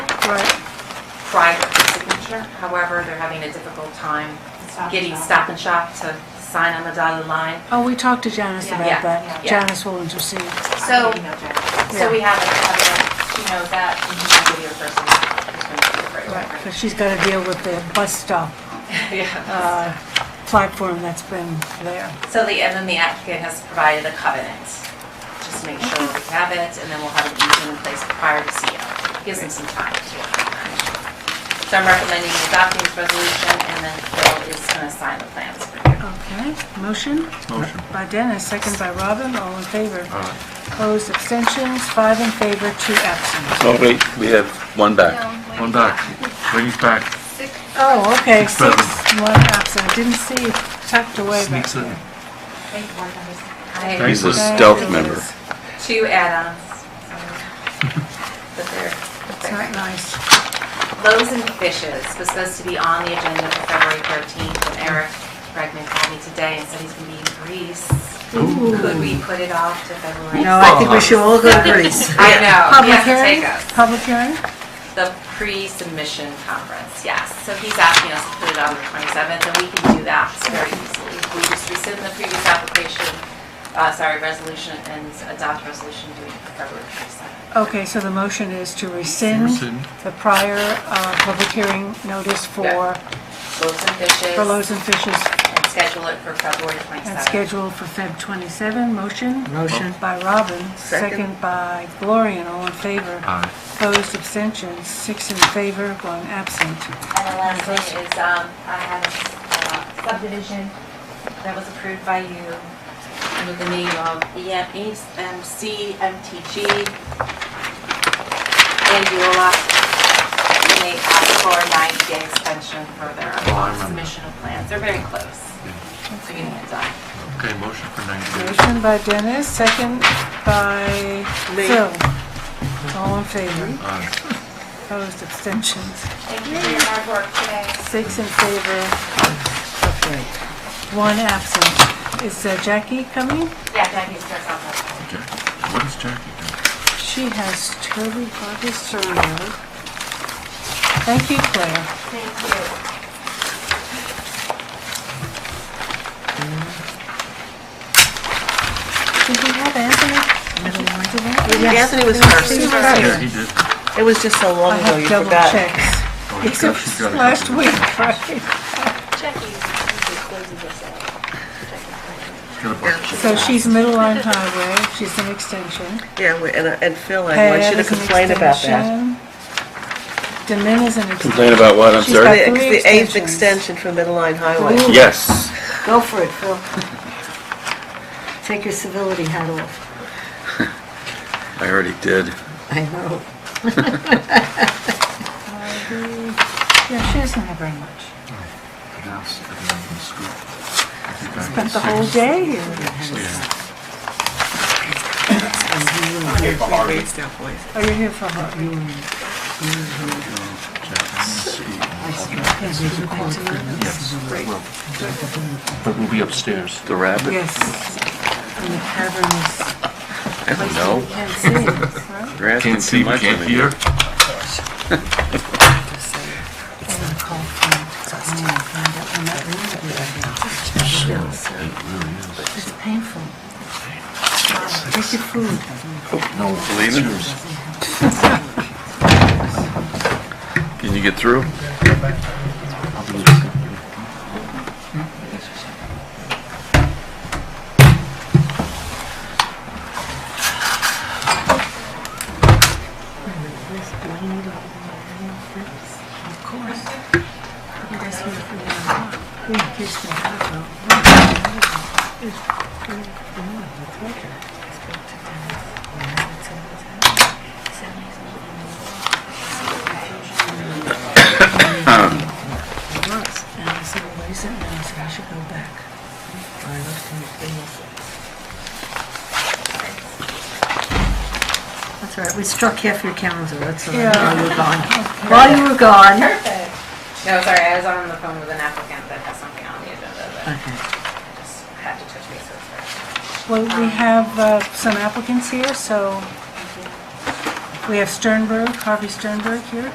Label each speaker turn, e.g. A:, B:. A: Right.
B: prior to signature. However, they're having a difficult time getting Stop and Shop to sign on the dotted line.
A: Oh, we talked to Janice
B: Yeah.
A: about
B: Yeah,
A: that.
B: yeah.
A: Janice will intercede.
B: So,
A: Yeah.
B: so we have, it, have it, she knows that, and she's gonna be your person who's going to do it right away.
A: Because she's got to deal with the bus stop
B: Yeah.
A: uh, platform that's been there.
B: So the, and then the applicant has provided a covenant. Just make sure we have it, and then we'll have an easement in place prior to CO. Gives them some time to work on that. So I'm recommending adopting this resolution, and then Phil is gonna sign the plans for you.
A: Okay, motion
C: Motion.
A: by Dennis, second by Robin, all in favor. Opposed, abstentions, five in favor, two absent.
C: Oh, wait, we have one back.
D: No,
E: One
D: wait.
E: back. Bring it back.
D: Six.
A: Oh, okay, six,
E: Seven.
A: one absent. I Didn't see it tucked away back
E: Sneaks in.
A: there.
B: I-
E: Thank
C: He's a
E: you.
C: stealth member.
B: two add-ons. But they're,
A: It's not nice.
B: Loaves and Fishes was supposed to be on the agenda for February 13th, and Eric Bregman called me today and said he's going to be in Greece. Could we put it off to February?
F: No, I think we should all go to Greece.
B: I know, he
A: Public
B: has to
A: hearing?
B: take us.
A: Public hearing?
B: The pre-submission conference, yes. So he's asking us to put it on the 27th, and we can do that very easily. We just rescind the previous application, uh, sorry, resolution, and adopt resolution doing it for February 27th.
A: Okay, so the motion is to rescind
E: Rescind.
A: the prior uh, public hearing notice for,
B: Loaves and Fishes.
A: for loaves and fishes
B: and schedule it for February 27th.
A: and scheduled for Feb. 27. Motion
F: Motion.
A: by Robin,
F: Second.
A: second by Gloria, all in favor.
E: Aye.
A: Opposed, abstentions, six in favor, one absent.
B: And the last thing is, um, I have a subdivision that was approved by you under the name of E EMC MTG. And you will ask, and they asked for a ninety-day extension for their
E: Oh, I remember.
B: submission of plans. They're very close. So you need to die.
E: Okay, motion for 90 days.
A: Motion by Dennis, second by
F: Me.
A: Phil. All in favor.
E: Aye.
A: Opposed, abstentions,
D: Thank you for your hard work today.
A: six in favor, one absent. Is uh, Jackie coming?
B: Yeah, Jackie starts on that.
E: Okay. What is Jackie doing?
A: She has Toby Harvey survey. Thank you, Claire.
D: Thank you.
A: Did we have Anthony? Did we?
F: Anthony was first.
A: He was
E: Yeah,
A: first.
E: he did.
F: It was just so
A: I
F: long ago,
A: have
F: Oh, you
A: double
F: forgot.
A: checks.
E: Oh, he's
A: It
E: got- she's
A: was
E: got a
A: last
E: couple.
A: week, right?
E: She's got a bunch.
A: So she's Middle Line Highway, she's an extension.
F: Yeah, we- and uh, and Phil, I
A: Pat
F: want you to
A: is an
F: complain about that.
A: extension. Demin is an extension.
C: Complain about what, I'm
A: She's
F: The
A: got-
C: sorry?
F: the eighth
A: Three extensions.
F: extension from Middle Line Highway.
C: Yes.
G: Go for it, Phil. Take your civility hat off.
C: I already did.
G: I know.
A: Yeah, she doesn't have very much.
E: It is. It is in school. I think I
A: Spent the
E: can
A: whole
E: see-
A: day here.
E: Yeah.
A: Oh, you're here for her.
E: But we'll be upstairs.
C: The rabbit?
A: Yes. And the cavernous.
C: I don't know.
A: Can't see it, right?
C: You're asking
E: Can't see,
C: too much
E: can't
C: of me.
E: hear.
A: It's painful. Take your food.
E: No,
C: Believe it? Can you get through?
A: And I said, well, what is it? And I said, I should go back.
G: That's all right, we struck half your calendar, that's all right.
A: Yeah.
G: While you were gone. While you were gone.
B: Perfect. No, sorry, I was on the phone with an applicant that has something on the agenda that
G: Okay.
B: I just had to touch base with first.
A: Well, we have uh, some applicants here, so we have Sternberg, Harvey Sternberg here.